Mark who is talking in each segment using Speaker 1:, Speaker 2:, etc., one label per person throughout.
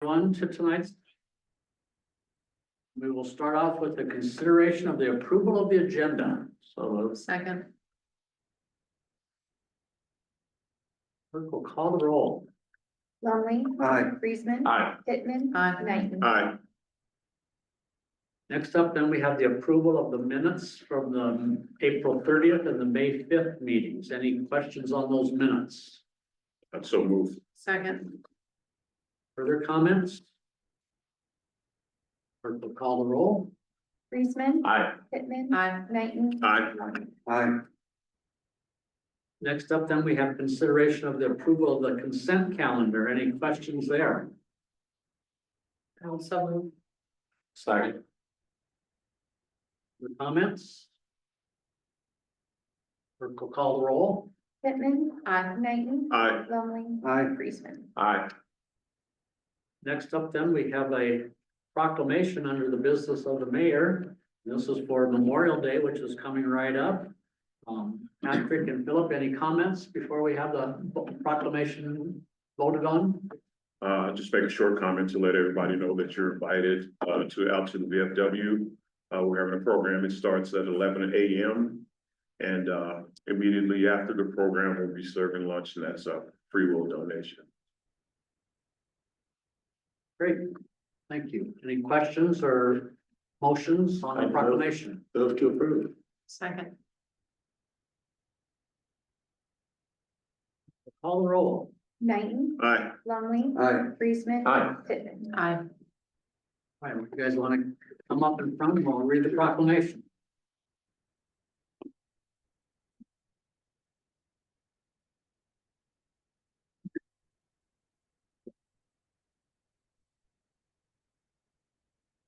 Speaker 1: One to tonight's. We will start off with the consideration of the approval of the agenda. So
Speaker 2: Second,
Speaker 1: clerk will call the roll.
Speaker 3: Longley.
Speaker 4: Aye.
Speaker 3: Friesman.
Speaker 4: Aye.
Speaker 3: Pittman.
Speaker 2: Aye.
Speaker 3: Knighton.
Speaker 4: Aye.
Speaker 1: Next up, then we have the approval of the minutes from the April thirtieth and the May fifth meetings. Any questions on those minutes?
Speaker 4: And so moved.
Speaker 2: second,
Speaker 1: Further comments? Clerk will call the roll.
Speaker 3: Friesman.
Speaker 4: Aye.
Speaker 3: Pittman.
Speaker 2: aye,
Speaker 3: Knighton.
Speaker 4: Aye. Aye.
Speaker 1: Next up, then we have consideration of the approval of the consent calendar. Any questions there?
Speaker 2: I'll so move,
Speaker 1: Sorry. The comments? Clerk will call the roll.
Speaker 3: Pittman.
Speaker 2: aye,
Speaker 3: Knighton.
Speaker 4: Aye.
Speaker 3: Longley.
Speaker 4: Aye.
Speaker 3: Friesman.
Speaker 4: Aye.
Speaker 1: Next up then, we have a proclamation under the business of the mayor. This is for Memorial Day, which is coming right up. Um, Patrick and Philip, any comments before we have the proclamation voted on?
Speaker 4: Uh, just make a short comment to let everybody know that you're invited, uh, to, out to the VFW. Uh, we're having a program. It starts at eleven AM. And, uh, immediately after the program, we'll be serving lunch and that's a free will donation.
Speaker 1: Great, thank you. Any questions or motions on the proclamation?
Speaker 4: Those to approve.
Speaker 2: second,
Speaker 1: Call the roll.
Speaker 3: Knighton.
Speaker 4: Aye.
Speaker 3: Longley.
Speaker 4: Aye.
Speaker 3: Friesman.
Speaker 4: Aye.
Speaker 3: Pittman.
Speaker 2: aye,
Speaker 1: All right, if you guys want to come up in front, we'll read the proclamation.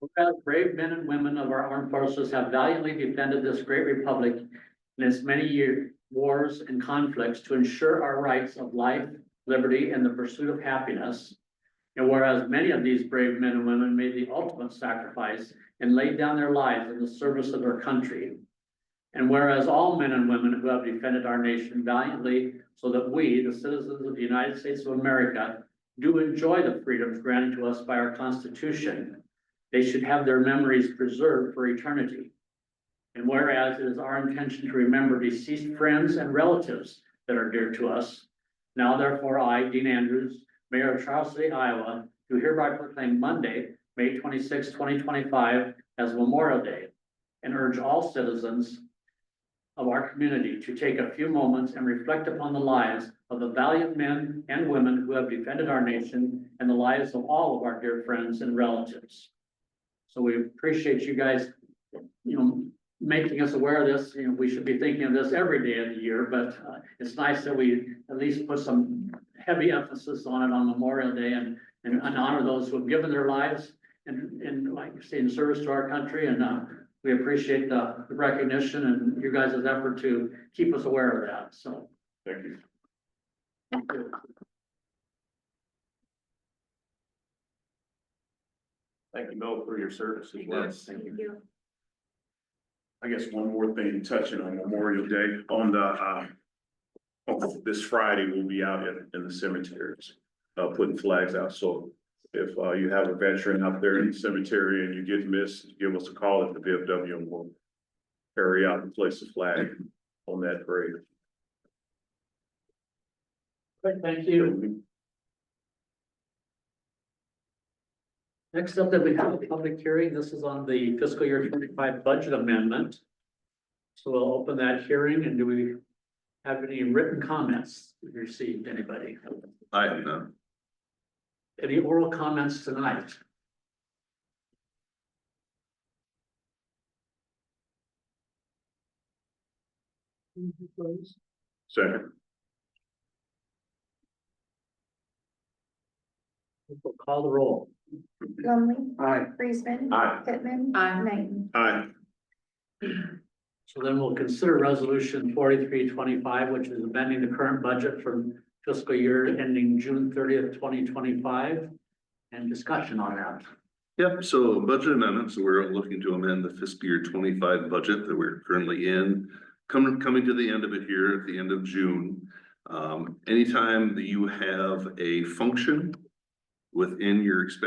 Speaker 1: Whereas brave men and women of our armed forces have valiantly defended this great republic in its many year wars and conflicts to ensure our rights of life, liberty, and the pursuit of happiness. And whereas many of these brave men and women made the ultimate sacrifice and laid down their lives in the service of our country. And whereas all men and women who have defended our nation valiantly so that we, the citizens of the United States of America, do enjoy the freedoms granted to us by our Constitution, they should have their memories preserved for eternity. And whereas it is our intention to remember deceased friends and relatives that are dear to us, now therefore I, Dean Andrews, Mayor of Charles City, Iowa, do hereby proclaim Monday, May 26, 2025, as Memorial Day and urge all citizens of our community to take a few moments and reflect upon the lives of the valiant men and women who have defended our nation and the lives of all of our dear friends and relatives. So we appreciate you guys, you know, making us aware of this. You know, we should be thinking of this every day of the year, but uh, it's nice that we at least put some heavy emphasis on it on Memorial Day and, and and honor those who have given their lives and, and like you say, in service to our country. And, uh, we appreciate the recognition and you guys' effort to keep us aware of that. So
Speaker 4: Thank you. Thank you, Bill, for your service as well.
Speaker 3: Thank you.
Speaker 4: I guess one more thing touching on Memorial Day, on the, uh, on this Friday, we'll be out in, in the cemeteries, uh, putting flags out, so if, uh, you have a veteran out there in the cemetery and you get missed, give us a call at the VFW and we'll carry out and place the flag on that grave.
Speaker 1: Great, thank you. Next up that we have a public hearing. This is on the fiscal year twenty-five budget amendment. So we'll open that hearing and do we have any written comments we received, anybody?
Speaker 4: I have none.
Speaker 1: Any oral comments tonight?
Speaker 4: Second.
Speaker 1: We'll Call the roll.
Speaker 3: Longley.
Speaker 4: Aye.
Speaker 3: Friesman.
Speaker 4: Aye.
Speaker 3: Pittman.
Speaker 2: Aye.
Speaker 3: Knighton.
Speaker 4: Aye.
Speaker 1: So then we'll consider resolution forty-three twenty-five, which is amending the current budget from fiscal year ending June thirtieth, twenty twenty-five. And discussion on that.
Speaker 5: Yep, so budget amendments, we're looking to amend the fiscal year twenty-five budget that we're currently in. Coming, coming to the end of it here at the end of June. Um, anytime that you have a function within your expense